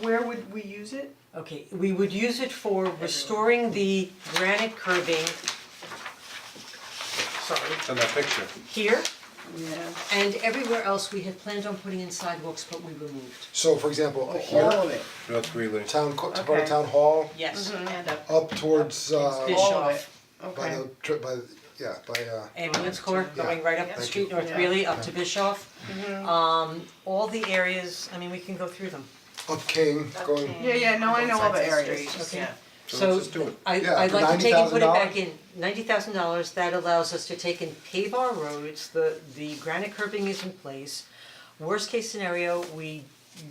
where would we use it? Okay, we would use it for restoring the granite curbing. Sorry, in that picture. here Yeah. and everywhere else, we had planned on putting in sidewalks, but we removed. So for example, up All here, of it. North Greeley. town, co- to part Okay. of town hall, Yes. Mm-hmm. And up. up towards uh Fish. All of it, by okay. the trip by the, yeah, by uh Ambulance corps going right up the Thank street, you. North Yeah. Greeley, up to Bischoff. Um, all the areas, I mean, we can go through them. up King, going Yeah, yeah, no, I know all the areas, Okay. yeah. So let's just do it. I Yeah, I'd for like to take and put it $90,000. back in, ninety thousand dollars, that allows us to take and pave our roads, the the granite curbing is in place. Worst case scenario, we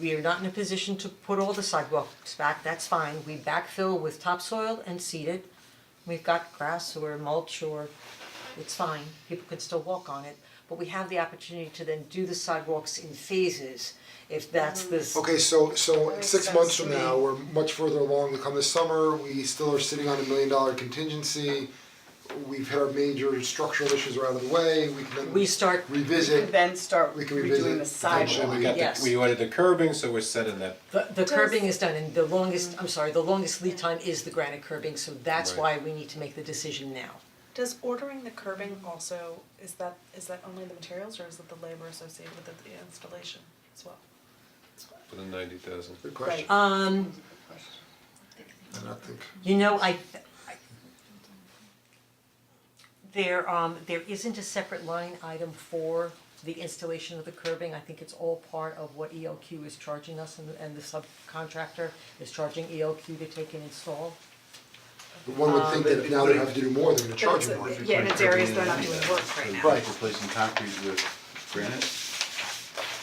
we are not in a position to put all the sidewalks back, that's fine, we backfill with topsoil and seed it. We've got grass or mulch or it's fine, people can still walk on it, but we have the opportunity to then do the sidewalks in phases, if that's this. Okay, so so six sense months to from me. now, we're much further along, we come this summer, we still are sitting on a million dollar contingency. We've hit our major structural issues are out of the way, we can We then start, revisit, Then start We can revisit redoing the So we sidewalk. got the, Yes. we ordered the curbing, so we're set in that. the the curbing is done and the longest, I'm sorry, the longest lead time is the granite curbing, so that's why Right. we need to make the decision now. Does ordering the curbing also, is that, is that only the materials or is it the labor associated with the installation as well? For the ninety thousand. good question, Um, and I think, you know, I, I- there, um, there isn't a separate line item for the installation of the curbing, I think it's all part of what ELQ is charging us and, and the subcontractor is charging ELQ to take and install. but one Um, would think that if now they have to do more, they're gonna charge you more. But it's- Yeah, and it's areas they're not doing work right now. Right. Replacing concrete with granite?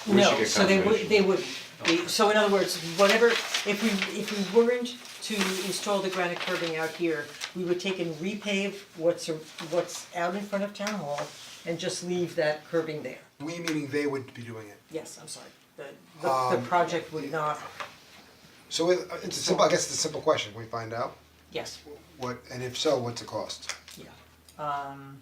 We should No, get so they would, confirmation. they would, be- so in other words, whatever, if we, if we weren't to install the granite curbing out here, we would take and repave what's, a- what's out in front of town hall and just leave that curbing there. We meaning they would be doing it. Yes, I'm sorry, the, the, the Um, project would not, So it it's a simple, I guess it's a simple question, we find out yes, what, and if so, what's the cost? yeah. Um,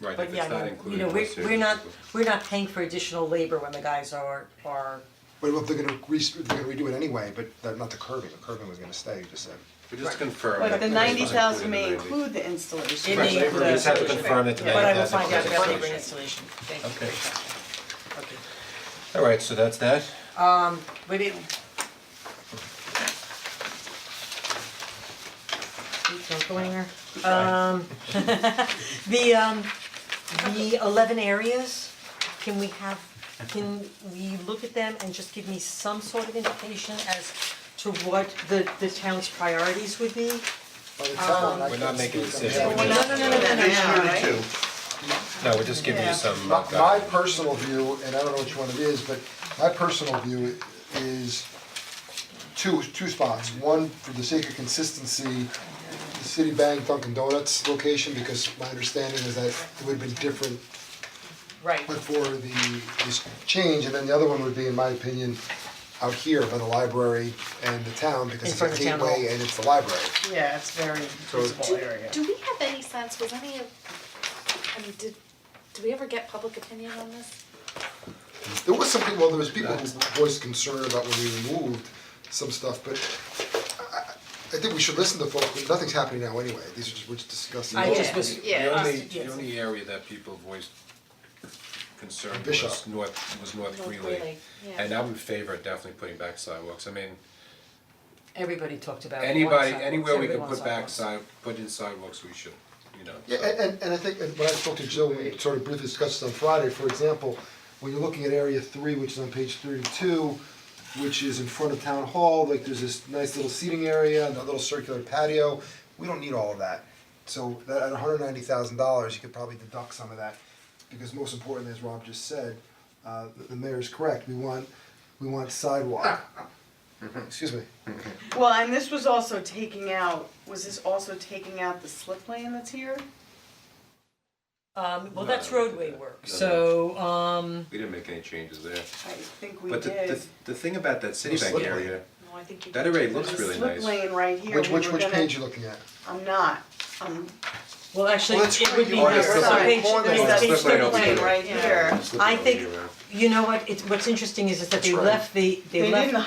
Right, but if yeah, it's no, not you included. know, we'll we're, see. we're not, we're not paying for additional labor when the guys are, are, But if they're gonna re- they're gonna redo it anyway, but they're not the curbing, the curbing was gonna stay, you just said. We just confirm. But that the it's ninety thousand included may in the include the installation. It Right, may so we just have to confirm that the but I will 90,000 find out is about included. labor and installation, thank you. Okay. Okay. All right, so that's that. But it. Oops, Don't go anywhere. Um, the um, the eleven areas, can we have, can we look at them and just give me some sort of indication as to what the the town's priorities would be? By the time, I We're not can't making a speak on decision, we're that. No, just. no, no, no, no, no. Yeah, right? No, we're just giving you some. My, uh, my personal view, and I don't know which one it is, but my personal view is two, two spots. One, for the sake of consistency, the City Bank Dunkin' Donuts location, because my understanding is that it would have been different Right. but for the, this change, and then the other one would be, in my opinion, out here by the library and the town, because In it's front a of town hall. gateway and it's the library. Yeah, it's very visible area. Do we have any sense, was any of, I mean, did, do we ever get public opinion on this? There was some people, well, there was people who voiced concern about when we removed some stuff, but I, I, I think we should listen to folks, nothing's happening now anyway, these are just, we're just discussing. I just was, The only, yes. the only area that people voiced concern was Bishop. North, was North Greeley. Greeley, yeah. And I'm in favor of definitely putting back sidewalks, I mean, everybody talked about one anybody, sidewalk, anywhere we everybody can wants put back sidewalks. side, put in sidewalks, we should, you know, Yeah, so. and and and I think, and when I spoke to Jill, we sort of briefly discussed this on Friday, for example, when you're looking at area three, which is on page thirty-two, which is in front of town hall, like there's this nice little seating area and a little circular patio, we don't need all of that. So that at hundred ninety thousand dollars, you could probably deduct some of that, because most importantly, as Rob just said, uh the- the mayor's correct, we want, we want sidewalk. Excuse me. Well, and this was also taking out, was this also taking out the slip lane that's here? Um, well, No, that's we did roadway that. work, No, no. so, um, we didn't make any changes there. I think we But did. the, the, the thing about that Citibank slippery. area, No, I think you. that already looks The really slip nice. lane right here, Which we which were which page you gonna, looking at? I'm not, I'm well, actually, Well, that's it right, would you be, are no, it's right. on page, Slip no, lane. it's That's page slip lane thirty-three. over lane there. right here. Slip I lane think, over there. you know what, it's, what's interesting is, is that they That's right. left the, they They left didn't